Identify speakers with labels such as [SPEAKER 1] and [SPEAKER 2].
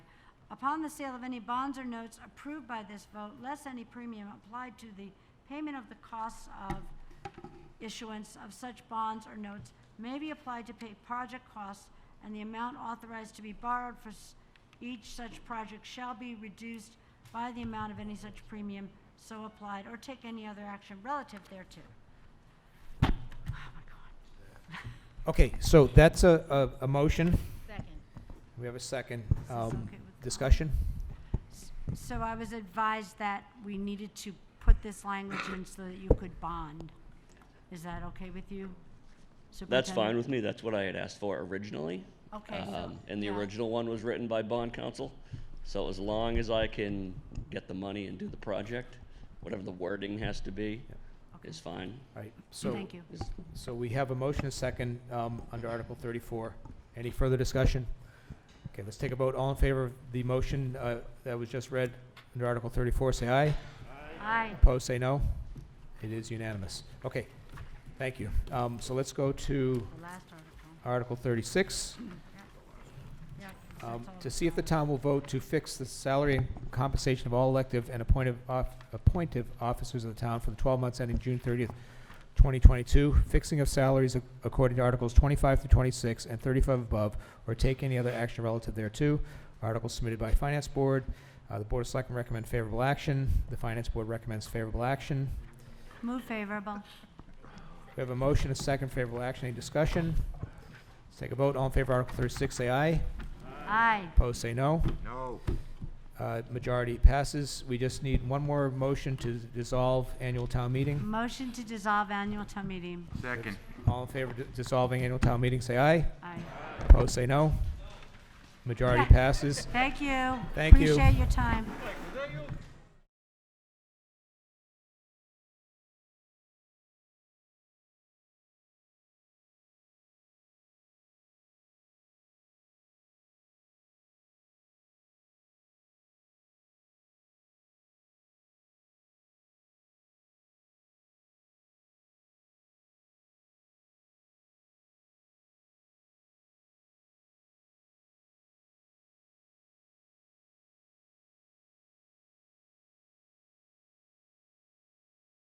[SPEAKER 1] Upon the sale of any bonds or notes approved by this vote, less any premium applied to the payment of the costs of issuance of such bonds or notes may be applied to pay project costs, and the amount authorized to be borrowed for s- each such project shall be reduced by the amount of any such premium so applied, or take any other action relative thereto. Oh, my God.
[SPEAKER 2] Okay, so that's a, a, a motion.
[SPEAKER 3] Second.
[SPEAKER 2] We have a second.
[SPEAKER 1] this
[SPEAKER 2] Um,
[SPEAKER 1] okay with-
[SPEAKER 2] discussion?
[SPEAKER 1] So I was advised that we needed to put this language in so that you could bond. Is that okay with you?
[SPEAKER 4] That's fine
[SPEAKER 1] Superintendent?
[SPEAKER 4] with me. That's what I had asked for originally.
[SPEAKER 1] Okay, so-
[SPEAKER 4] Um, And the
[SPEAKER 1] yeah.
[SPEAKER 4] original one was written by bond counsel. So as long as I can get the money and do the project, whatever the wording has to be, is fine.
[SPEAKER 2] All right, so. uh,
[SPEAKER 1] Thank you.
[SPEAKER 4] Is-
[SPEAKER 2] So we have a motion, a second, um, under Article thirty-four. Any further discussion? Okay, let's take a vote. All in favor of the motion, uh, that was just read under Article thirty-four, say aye.
[SPEAKER 1] Aye.
[SPEAKER 2] Opposed, say no. It is unanimous. Okay, thank you. Um, so let's go to
[SPEAKER 1] The last article.
[SPEAKER 2] Article thirty-six,
[SPEAKER 1] Yeah,
[SPEAKER 2] um,
[SPEAKER 1] that's all
[SPEAKER 2] to see if the
[SPEAKER 1] gone.
[SPEAKER 2] town will vote to fix the salary and compensation of all elective and appointive off, appointive officers of the town for the twelve months ending June thirtieth, 2022, fixing of salaries ac- according to Articles 25 through 26 and 35 above, or take any other action relative thereto. Article submitted by Finance Board. Uh, The Board of Selectmen recommend favorable action. The Finance Board recommends favorable action.
[SPEAKER 1] Move favorable.
[SPEAKER 2] Uh, We have a motion, a second favorable action. Any discussion? Let's take a vote. All in favor of Article 36, say aye.
[SPEAKER 1] Aye.
[SPEAKER 2] Opposed, say no.
[SPEAKER 5] No.
[SPEAKER 2] Uh, Majority passes. We just need one more motion to dissolve annual town meeting.
[SPEAKER 1] Motion to dissolve annual town meeting.
[SPEAKER 5] Second.
[SPEAKER 2] All in favor of dissolving annual town meeting, say aye.
[SPEAKER 1] Aye.
[SPEAKER 2] Opposed, say no. Majority passes.
[SPEAKER 1] Thank you.
[SPEAKER 2] Thank you.
[SPEAKER 1] Appreciate your time.